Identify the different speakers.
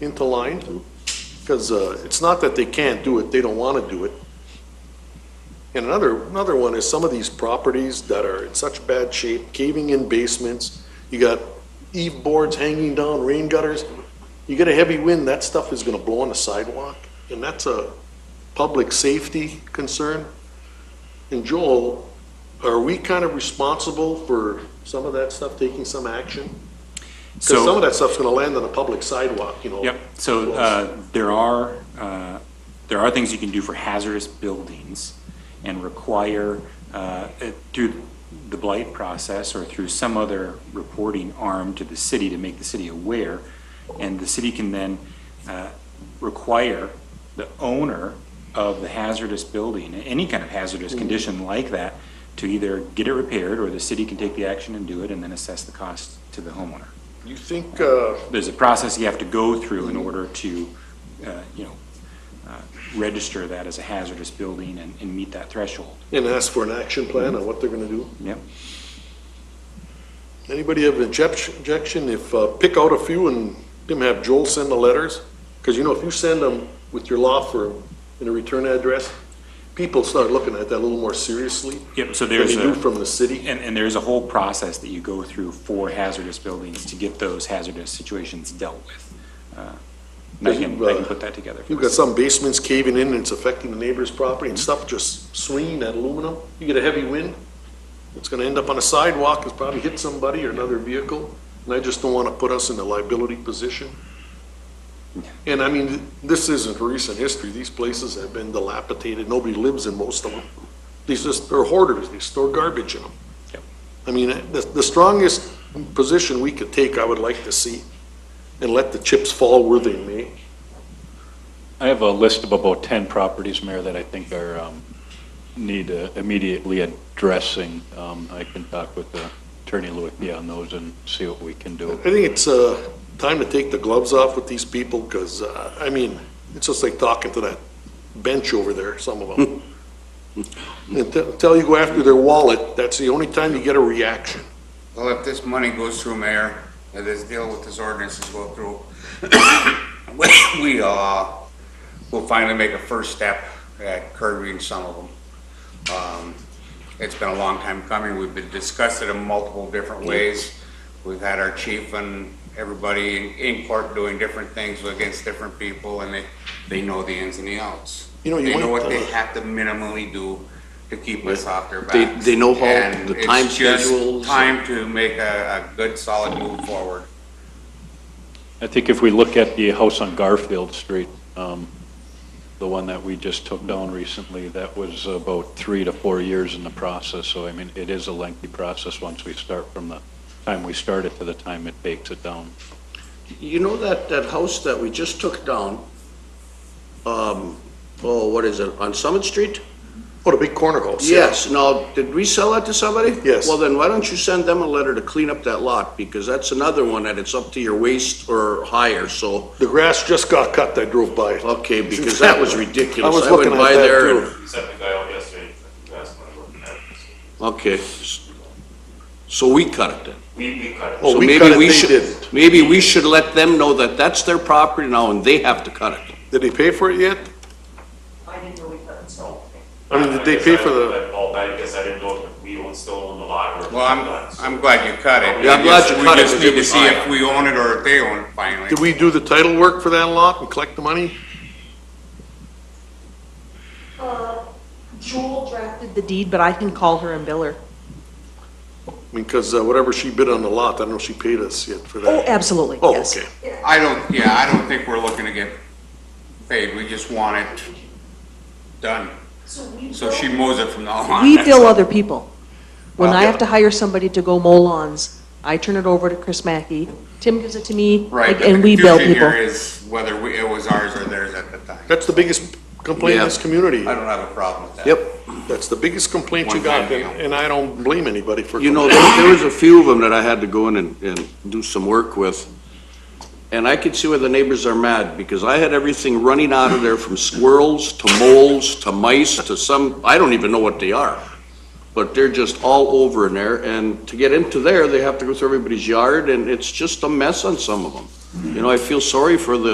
Speaker 1: into line? Because uh, it's not that they can't do it, they don't want to do it. And another, another one is some of these properties that are in such bad shape, caving in basements, you got eve boards hanging down, rain gutters. You get a heavy wind, that stuff is going to blow on the sidewalk, and that's a public safety concern. And Joel, are we kind of responsible for some of that stuff, taking some action? Because some of
Speaker 2: So,
Speaker 1: that stuff's gonna land on a public sidewalk, you know?
Speaker 2: yep, so uh, there are, uh, there are things you can do for hazardous buildings and require, uh, it- through the blight process or through some other reporting arm to the city to make the city aware. And the city can then uh, require the owner of the hazardous building, any kind of
Speaker 1: Mm.
Speaker 2: hazardous condition like that, to either get it repaired or the city can take the action and do it and then assess the cost to the homeowner.
Speaker 1: You think, uh,
Speaker 2: there's a process you have to go through in order to, uh, you know, uh, register that as a hazardous building and, and meet that threshold.
Speaker 1: and ask for an action plan on what they're gonna do?
Speaker 2: Yep.
Speaker 1: Anybody have an object- objection if, uh, pick out a few and then have Joel send the letters? Because you know, if you send them with your law firm and a return address, people start looking at that a little more seriously
Speaker 2: Yep, so
Speaker 1: than they
Speaker 2: there's
Speaker 1: do
Speaker 2: a,
Speaker 1: from the city.
Speaker 2: and, and there's a whole process that you go through for hazardous buildings to get those hazardous situations dealt with. Uh, and I can, I can put that together. for
Speaker 1: uh, You've got
Speaker 2: us.
Speaker 1: some basements caving in and it's affecting the neighbor's property and stuff just swinging that aluminum. You get a heavy wind, it's gonna end up on a sidewalk, it's probably hit somebody or another vehicle. And I just don't wanna put us in a liability position. And I mean, this isn't recent history. These places have been dilapidated. Nobody lives in most of them. These just, they're hoarders. They store garbage in them.
Speaker 2: Yep.
Speaker 1: I mean, the, the strongest position we could take, I would like to see, and let the chips fall where they may.
Speaker 3: I have a list of about 10 properties, Mayor, that I think are, um, need uh, immediately addressing. Um, I can talk with uh, Attorney Luitia on those and see what we can do.
Speaker 1: I think it's uh, time to take the gloves off with these people, because, I mean, it's just like talking to that bench over there, some of them. Until you go after their wallet, that's the only time you get a reaction.
Speaker 4: Well, if this money goes through, Mayor, and this deal with this ordinance is go through, we- we, uh, will finally make a first step at curbing some of them. Um, It's been a long time coming. We've been discussing it in multiple different ways. We've had our chief and everybody in- in court doing different things against different people, and they, they know the ins and the outs.
Speaker 1: You know, you
Speaker 4: They know
Speaker 1: might,
Speaker 4: what they
Speaker 1: uh,
Speaker 4: have to minimally do to keep us off their
Speaker 5: They-
Speaker 4: backs.
Speaker 5: they know how
Speaker 4: And
Speaker 5: the
Speaker 4: it's
Speaker 5: time
Speaker 4: just
Speaker 5: schedules.
Speaker 4: Time to make a, a good solid move forward.
Speaker 3: I think if we look at the house on Garfield Street, um, the one that we just took down recently, that was about three to four years in the process. So I mean, it is a lengthy process once we start from the time we start it to the time it takes it down.
Speaker 5: You know that, that house that we just took down, um, oh, what is it, on Summit Street?
Speaker 1: What a big corner house.
Speaker 5: Yes, now, did we sell that to somebody?
Speaker 1: Yes.
Speaker 5: Well, then why don't you send them a letter to clean up that lot, because that's another one that it's up to your waist or higher, so,
Speaker 1: The grass just got cut, I drove by it.
Speaker 5: okay, because that was ridiculous.
Speaker 1: I was
Speaker 5: went
Speaker 1: looking at
Speaker 5: by
Speaker 1: that
Speaker 5: there
Speaker 1: too.
Speaker 5: and-
Speaker 6: You sent the guy out yesterday, you asked him, I'm looking at it.
Speaker 5: Okay, so we cut it then.
Speaker 6: We, we cut it.
Speaker 1: Oh,
Speaker 5: So
Speaker 1: we
Speaker 5: maybe
Speaker 1: cut it, they
Speaker 5: should-
Speaker 1: didn't.
Speaker 5: Maybe we should let them know that that's their property now, and they have to cut it.
Speaker 1: Did they pay for it yet?
Speaker 7: I didn't know we couldn't sell.
Speaker 1: I mean, did they pay for the,
Speaker 6: I called back because I didn't know if we own, still own the lot or.
Speaker 4: Well, I'm, I'm glad you cut it.
Speaker 5: Yeah, I'm glad you
Speaker 4: We
Speaker 5: cut it,
Speaker 4: just
Speaker 5: because it
Speaker 4: need to
Speaker 5: was
Speaker 4: see if
Speaker 5: mine.
Speaker 4: we own it or if they own it finally.
Speaker 1: did we do the title work for that lot and collect the money?
Speaker 7: Uh, Jewel drafted the deed, but I can call her and bill her.
Speaker 1: Because uh, whatever she bid on the lot, I don't know if she paid us yet for
Speaker 7: Oh,
Speaker 1: that.
Speaker 7: absolutely,
Speaker 1: Oh,
Speaker 7: yes.
Speaker 1: okay.
Speaker 4: I don't, yeah, I don't think we're looking to get paid. We just want it done. So she mows it from now on.
Speaker 7: We
Speaker 4: That's
Speaker 7: bill
Speaker 4: all.
Speaker 7: other people. When
Speaker 4: Well,
Speaker 7: I
Speaker 4: yeah.
Speaker 7: have to hire somebody to go mow lawns, I turn it over to Chris Mackey. Tim gives it to me,
Speaker 4: Right,
Speaker 7: like,
Speaker 4: but
Speaker 7: and
Speaker 4: the
Speaker 7: we bill
Speaker 4: confusion
Speaker 7: people.
Speaker 4: here is whether we- it was ours or theirs at the time.
Speaker 1: That's the biggest complaint in this
Speaker 5: Yeah.
Speaker 1: community.
Speaker 4: I don't have a problem with that.
Speaker 1: That's the biggest complaint you got, and and I don't blame anybody for.
Speaker 5: You know, there there was a few of them that I had to go in and, and do some work with. And I could see why the neighbors are mad, because I had everything running out of there from squirrels to moles to mice to some, I don't even know what they are. But they're just all over in there, and to get into there, they have to go through everybody's yard, and it's just a mess on some of them. You know, I feel sorry for the